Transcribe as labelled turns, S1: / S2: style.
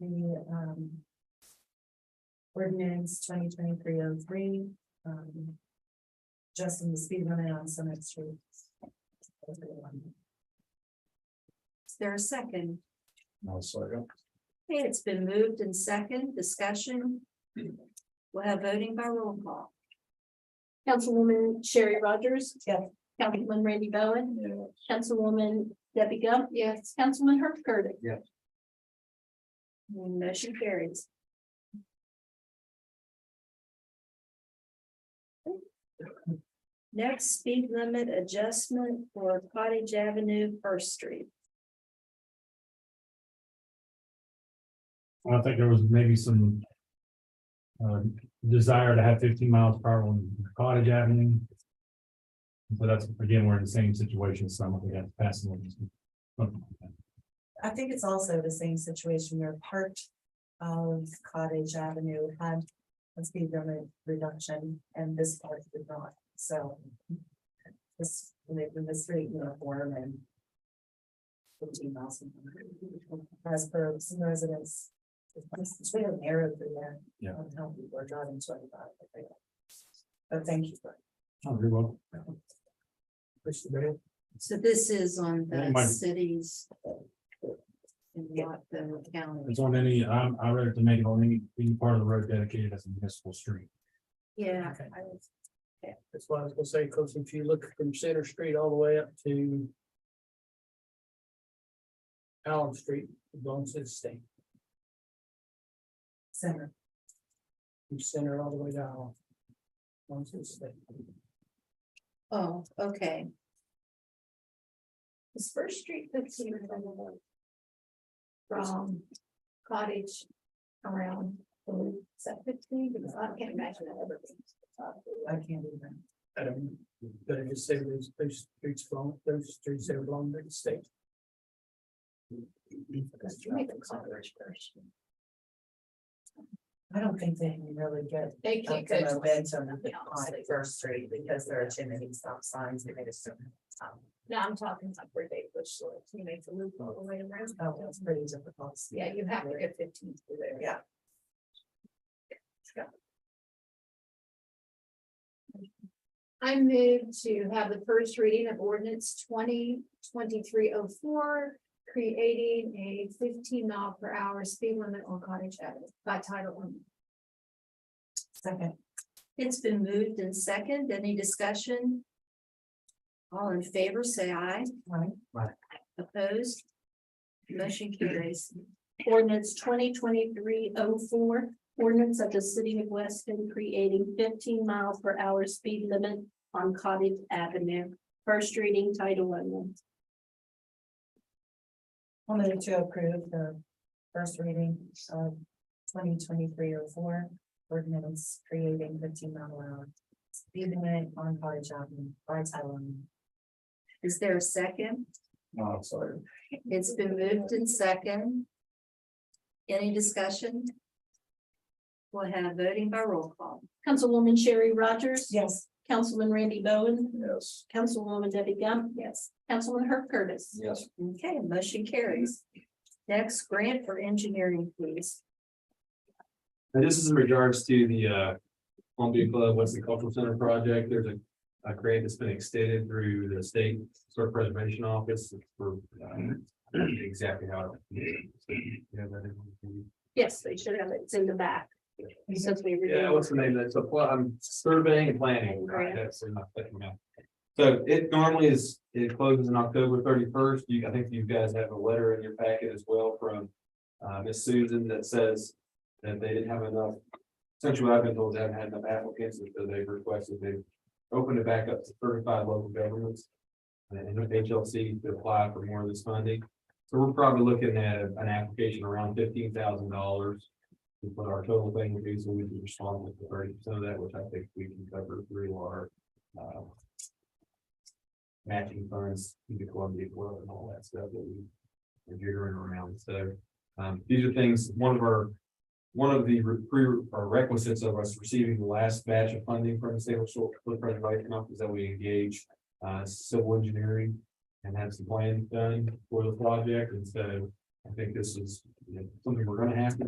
S1: the, um. Ordinance twenty twenty-three oh three, um. Justin, the speed limit on Summit Street. Is there a second?
S2: I'll second.
S1: Okay, it's been moved and second discussion. We'll have voting by roll call.
S3: Councilwoman Sherry Rogers.
S1: Yes.
S3: Councilman Randy Bowen. Councilwoman Debbie Gump. Yes. Councilman Herb Curtis.
S1: Motion carries. Next, speed limit adjustment for Cottage Avenue, First Street.
S2: I think there was maybe some. Uh, desire to have fifteen miles per hour on Cottage Avenue. So that's, again, we're in the same situation, so we have to pass an ordinance.
S1: I think it's also the same situation where part of Cottage Avenue had a speed limit reduction and this part did not, so. This, making the street uniform and. Fifteen miles an hour, as per some residents. It's really narrow through there.
S2: Yeah.
S1: On how people are driving twenty-five. but they don't. But thank you. for
S2: Oh, very well.
S4: So this is on
S2: That might-
S4: the cities. And not the county.
S2: It's on any, I'm, I read it to make it on any, any part of the road dedicated as a municipal street.
S4: Yeah.
S5: Okay.
S4: I was-
S5: That's why I was gonna say, cause if you look from Center Street all the way up to. Allen Street, it belongs to the state,
S1: Center,
S5: from Center all the way to Allen. Belongs to the state.
S4: Oh, okay.
S3: Is First Street fifteen or number one? From cottage around, is that fifteen? Because I can't imagine that ever being.
S1: I can't even.
S5: I don't, but I just say those, those streets belong, those streets there belong to the state.
S3: Because you make a cottage first.
S1: I don't think they can really get
S3: They
S1: up
S3: can't
S1: to
S3: go.
S1: momentum
S3: Yeah,
S1: on First Street because there are too many stop signs. they made us do it. Um,
S3: No, I'm talking like where they push, like, you make the loop all the way around.
S1: Oh, that's pretty difficult.
S3: Yeah, you have to get fifteen through there.
S1: Yeah.
S3: I move to have the first reading of ordinance twenty twenty-three oh four, creating a fifteen mile per hour speed limit on Cottage Avenue by title only.
S1: Second,
S4: It's been moved and second. Any discussion? All in favor, say aye.
S1: right?
S4: Opposed? Motion carries.
S3: Ordinance twenty twenty-three oh four, ordinance of the city of Weston creating fifteen miles per hour speed limit on Cottage Avenue. First reading title only.
S1: I'll move to approve the first reading of twenty twenty-three oh four ordinance creating fifteen mile an hour speed limit on Cottage Avenue by title only.
S4: Is there a second?
S2: Oh, sorry.
S4: It's been moved and second. Any discussion? We'll have voting by roll call.
S3: Councilwoman Sherry Rogers.
S1: Yes.
S3: Councilman Randy Bowen.
S2: Yes.
S3: Councilwoman Debbie Gump. Yes. Councilman Herb Curtis.
S2: Yes.
S4: Okay, motion carries. Next grant for engineering, please.
S2: And this is in regards to the uh Columbia Club, Weston Cultural Center project. There's a a grant that's been extended through the state sort of preservation office for um, exactly how. it- Yeah, that is-
S3: Yes, they should have it. It's in the back. Since we. reviewed
S2: Yeah, what's the name? That's a, pl- I'm surveying and planning.
S3: Grant.
S2: That's in my second map. So it normally is, it closes on October thirty-first. You, I think you guys have a letter in your packet as well from uh, Miss Susan that says that they didn't have enough, Central Avenue told them they haven't had enough applicants, and so they requested they opened it back up to thirty-five local governments and HLC to apply for more of this funding. So we're probably looking at an application around fifteen thousand dollars is what our total thing would be, so we can respond with the thirty percent of that, which I think we can cover through our, uh. Matching funds, the Columbia Club and all that stuff that we are jittering around, so, um, these are things, one of our. One of the re- pre- or requisites of us receiving the last batch of funding from the state of Short Footprint Advisory Council is that we engage, uh, civil engineering. And have some plans done for the project, and so I think this is you know, something we're gonna have to do.